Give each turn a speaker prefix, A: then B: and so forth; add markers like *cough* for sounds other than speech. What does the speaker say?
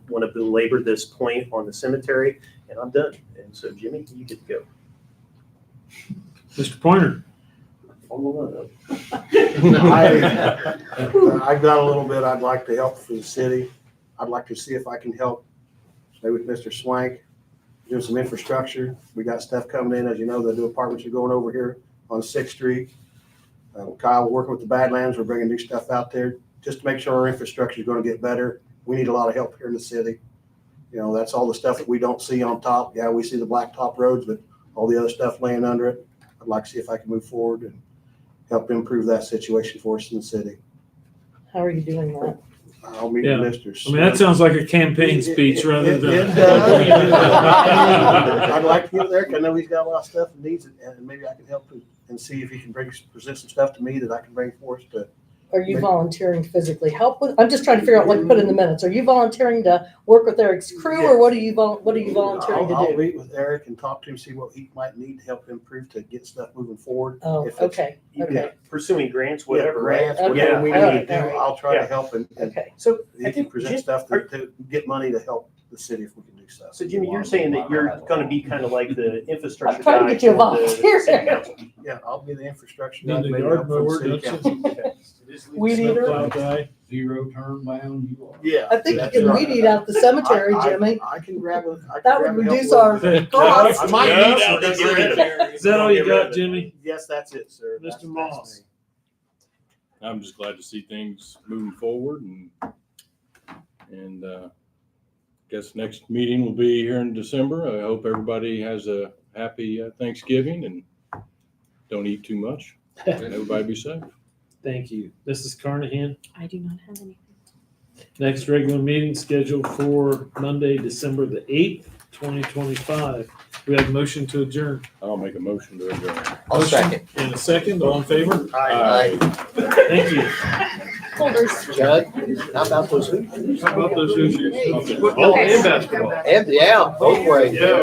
A: want to belabor this point on the cemetery, and I'm done. And so Jimmy, you get to go.
B: Mr. Pointer.
C: Follow
D: I-
C: *laughs* I've got a little bit I'd like to help for the city. I'd like to see if I can help, maybe with Mr. Swank, do some infrastructure. We got stuff coming in, as you know, the new apartments are going over here on Sixth Street. Uh, Kyle, working with the Badlands, we're bringing new stuff out there, just to make sure our infrastructure is gonna get better. We need a lot of help here in the city. You know, that's all the stuff that we don't see on top. Yeah, we see the blacktop roads, but all the other stuff laying under it. I'd like to see if I can move forward and help improve that situation for us in the city.
D: How are you doing that?
C: I'll meet
B: Yeah.
C: with Mr.
B: I mean, that sounds like a campaign speech rather
C: It- it-
B: than.
C: it does. *laughs* I'd like to get there, 'cause I know he's got a lot of stuff and needs, it, and maybe I can help him and see if he can bring, present some stuff to me that I can bring forth to.
D: Are you volunteering to physically help with, I'm just trying to figure out what to put in the minutes. Are you volunteering to work with Eric's crew or what are you, vol- what are you volunteering
C: I'll-
D: to
C: I'll
D: do?
C: meet with Eric and talk to him, see what he might need to help improve to get stuff moving forward.
D: Oh,
C: If it's-
D: okay,
A: You can
D: okay,
A: Pursuing grants, whatever, right?
C: Grants, Whatever
A: Okay.
C: we
A: Yeah.
C: need to do, I'll try to
A: Yeah.
C: help and, and *laughs*
D: okay.
A: So I
C: he can
A: think,
C: present
A: Jim-
C: stuff to, to get money to help the city if we can do stuff.
A: so Jimmy, you're saying that you're going to be kind of like the infrastructure.
D: *laughs* I'm trying to
A: guy
D: get you a
A: for the
D: volunteer.
A: city
D: *laughs*
A: council.
C: Yeah, I'll be the infrastructure. guy,
B: Not the
C: maybe
B: yard
C: help from the
B: mower,
C: city
B: that's it.
C: council.
D: Weed eater?
B: Snowplow guy.
E: Zero turn bound you are.
C: Yeah.
D: I think
C: that's
D: you can
C: right.
D: weed eat out the cemetery,
C: I- I-
D: Jimmy.
C: I can grab a. I can
D: That
C: grab
D: would
C: a help
D: reduce our
C: with it.
D: costs.
C: I might
B: Yeah,
C: need some
A: that's
C: good
A: right.
C: reading.
B: Is that all you got, Jimmy?
C: Yes, that's it, sir.
B: Mr.
C: That's- that's
B: Moss.
C: me.
F: I'm just glad to see things moving forward and, and, uh, guess next meeting will be here in December. I hope everybody has a happy uh, Thanksgiving and don't eat too much. and Everybody be safe.
B: Thank you. Mrs. Carnahan,
G: I do not have anything.
B: next regular meeting scheduled for Monday, December the eighth, twenty twenty-five. We have a motion to adjourn.
F: I'll make a motion to adjourn.
H: I'll second.
B: In a second, all in favor?
H: Aye.
B: Thank you.
H: Judd, how about those hoops?
B: How about those issues?
F: Okay.
B: Football and Oh, basketball.
H: And, yeah, both ways.